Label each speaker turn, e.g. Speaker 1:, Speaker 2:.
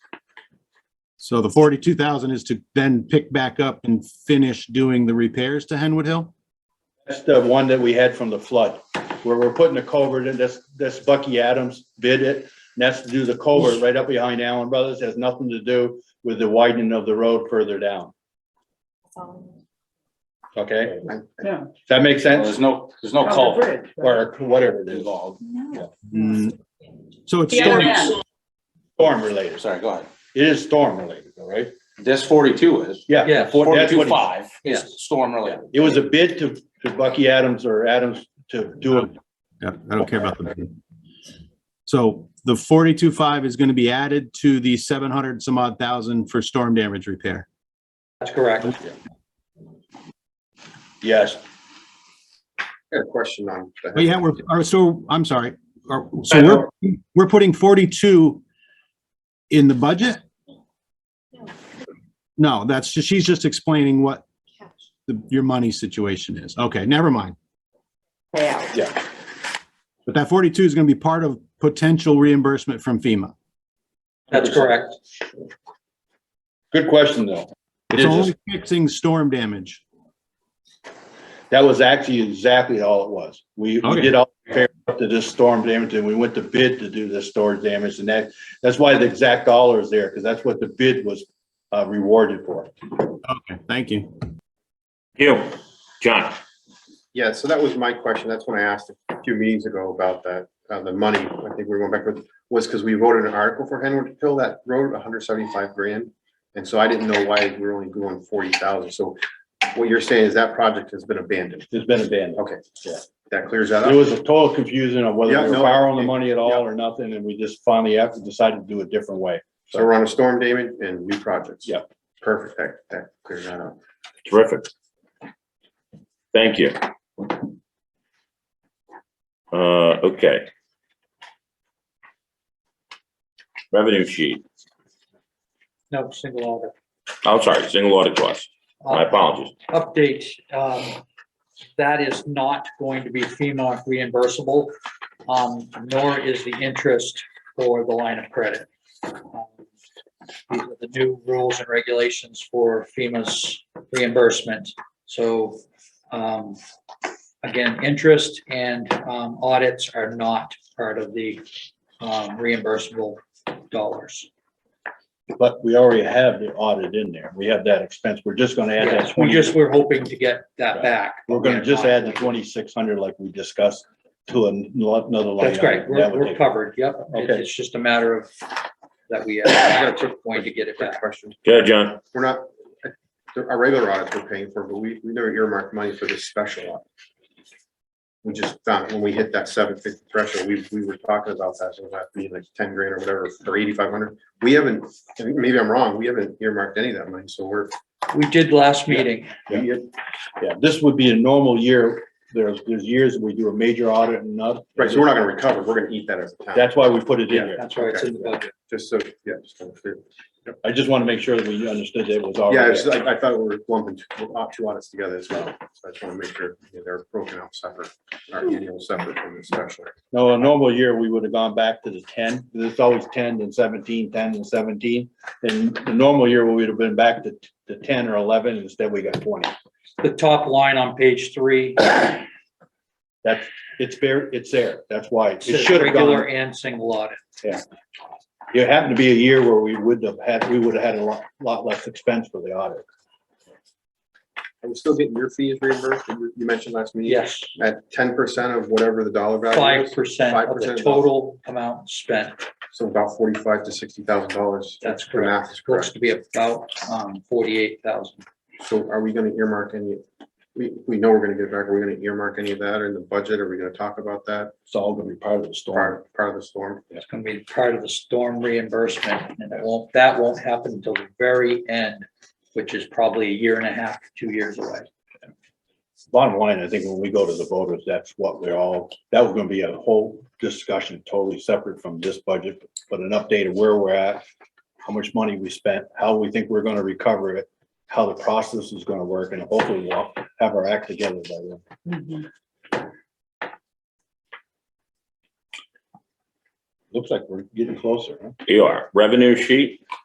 Speaker 1: So the forty-two thousand is to then pick back up and finish doing the repairs to Henwood Hill?
Speaker 2: That's the one that we had from the flood, where we're putting a culvert in, that's, that's Bucky Adams bid it. And that's to do the culvert right up behind Allen Brothers, has nothing to do with the widening of the road further down, okay?
Speaker 3: Yeah.
Speaker 2: Does that make
Speaker 4: Well,
Speaker 2: sense?
Speaker 4: There's no, there's no culvert
Speaker 2: Or whatever it is,
Speaker 4: involved.
Speaker 5: No.
Speaker 1: Mm, So it's
Speaker 3: The
Speaker 1: storm,
Speaker 3: other end,
Speaker 2: storm related.
Speaker 4: Sorry, go ahead.
Speaker 2: It is storm related, all right?
Speaker 4: This forty-two is.
Speaker 2: Yeah.
Speaker 6: Yeah,
Speaker 2: that's what he-
Speaker 4: Forty-two five
Speaker 6: Yeah.
Speaker 4: is storm related.
Speaker 2: It was a bid to, to Bucky Adams or Adams to do it.
Speaker 1: yeah, I don't care about the. So the forty-two five is gonna be added to the seven hundred some odd thousand for storm damage repair.
Speaker 6: That's correct.
Speaker 2: Yes,
Speaker 7: I got a question on. the-
Speaker 1: Oh, yeah, we're, are- so, I'm sorry, Are- so we're, we're putting forty-two in the budget? No, that's, ju- she's just explaining what the, your money situation is. Okay, never mind.
Speaker 5: Payout.
Speaker 1: But that forty-two is gonna be part of potential reimbursement from FEMA.
Speaker 6: That's correct.
Speaker 2: good question though.
Speaker 1: It's
Speaker 2: It is
Speaker 1: only fixing storm damage.
Speaker 2: That was actually exactly all it was. We, we
Speaker 1: Okay.
Speaker 2: did all repair up to this storm damage and we went to bid to do this storm damage and that, that's why the exact dollar is there, because that's what the bid was uh, rewarded for.
Speaker 1: Okay, thank you.
Speaker 8: You, John,
Speaker 7: Yeah, so that was my question. That's when I asked a few meetings ago about that, uh, the money, I think we went back with, was because we voted an article for Henwood Hill that road, hundred seventy-five grand. And so I didn't know why we were only going forty thousand. So what you're saying is that project has been abandoned.
Speaker 2: It's been abandoned.
Speaker 7: Okay, yeah, that clears that
Speaker 2: There
Speaker 7: up.
Speaker 2: was a total confusion on whether
Speaker 7: Yeah,
Speaker 2: we were
Speaker 7: no,
Speaker 2: borrowing the
Speaker 7: it-
Speaker 2: money at all
Speaker 7: yeah.
Speaker 2: or nothing, and we just finally have to decide to do it a different way.
Speaker 7: So we're on a storm damage and new projects.
Speaker 2: Yeah.
Speaker 7: Perfect, that, that clears that up.
Speaker 8: terrific. Thank you. Uh, okay. Revenue sheet,
Speaker 6: No, single order.
Speaker 8: I'm Oh, sorry, single audit cost, my apologies.
Speaker 6: Update, um, that is not going to be FEMA reimbursable, um, nor is the interest for the line of credit. Um, These are the new rules and regulations for FEMA's reimbursement. So, um, again, interest and, um, audits are not part of the, um, reimbursable dollars.
Speaker 2: But we already have the audit in there. We have that expense. We're just gonna add that
Speaker 6: Yes, we
Speaker 2: twenty,
Speaker 6: just, we're hoping to get that back.
Speaker 2: we're gonna just add the twenty-six hundred like we discussed to an- another line.
Speaker 6: That's great,
Speaker 2: item. That
Speaker 6: we're,
Speaker 2: would
Speaker 6: we're
Speaker 2: take-
Speaker 6: covered, yep. It-
Speaker 2: Okay.
Speaker 6: It's just a matter of that we are going to get it back.
Speaker 7: Question.
Speaker 8: Good, John,
Speaker 7: We're not, our regular audits we're paying for, but we, we never earmarked money for this special audit. We just found, when we hit that seven fifty threshold, we, we were talking about that, so that be like ten grand or whatever, or eighty-five hundred. We haven't, I mean, maybe I'm wrong, we haven't earmarked any of that money, so we're,
Speaker 6: We did last meeting,
Speaker 7: we get-
Speaker 2: Yeah, this would be a normal year. There's, there's years we do a major audit and not.
Speaker 7: right, so we're not gonna recover, we're gonna eat that as a town.
Speaker 2: That's why we put it in here.
Speaker 6: that's why it's in the budget.
Speaker 7: Just so, yeah, just kind of clear.
Speaker 2: I just want to make sure that we understood that it was
Speaker 7: Yeah,
Speaker 2: already.
Speaker 7: it's like, I thought we were lumping two uh, two audits together as well, so I just wanna make sure yeah, they're broken out separate, our annual separate from the special.
Speaker 2: No, a normal year, we would have gone back to the ten. It's always ten and 17, 10 and seventeen. And the normal year, we would have been back to, to ten or eleven. Instead, we got twenty.
Speaker 6: The top line on page three,
Speaker 2: That's, it's there, it's there. That's why. It
Speaker 6: says
Speaker 2: should have
Speaker 6: regular
Speaker 2: gone.
Speaker 6: and single audit.
Speaker 2: It happened to be a year where we would have had, we would have had a lot, lot less expense for the audit.
Speaker 7: Are we still getting your fees reimbursed? You you mentioned last meeting.
Speaker 6: Yes,
Speaker 7: At ten percent of whatever the dollar value
Speaker 6: five
Speaker 7: is,
Speaker 6: percent of the
Speaker 7: 5%
Speaker 6: total amount spent,
Speaker 7: so about forty-five to sixty thousand dollars.
Speaker 6: that's
Speaker 7: The
Speaker 6: correct.
Speaker 7: math is
Speaker 6: Looks
Speaker 7: correct.
Speaker 6: to be about, um, forty-eight thousand.
Speaker 7: So are we gonna earmark any, we, we know we're gonna get back, are we gonna earmark any of that in the budget? Are we gonna talk about that
Speaker 2: It's all going to be part of the storm.
Speaker 7: part, part of the storm?
Speaker 6: It's gonna be part of the storm reimbursement, and it won't, that won't happen until the very end, which is probably a year and a half, two years away.
Speaker 2: Bottom line, I think when we go to the voters, that's what we're all, that was gonna be a whole discussion totally separate from this budget, but an update of where we're at, how much money we spent, how we think we're gonna recover it, how the process is gonna work, and hopefully we'll have our act together by then. Looks like we're getting closer, huh?
Speaker 8: you are, revenue sheet,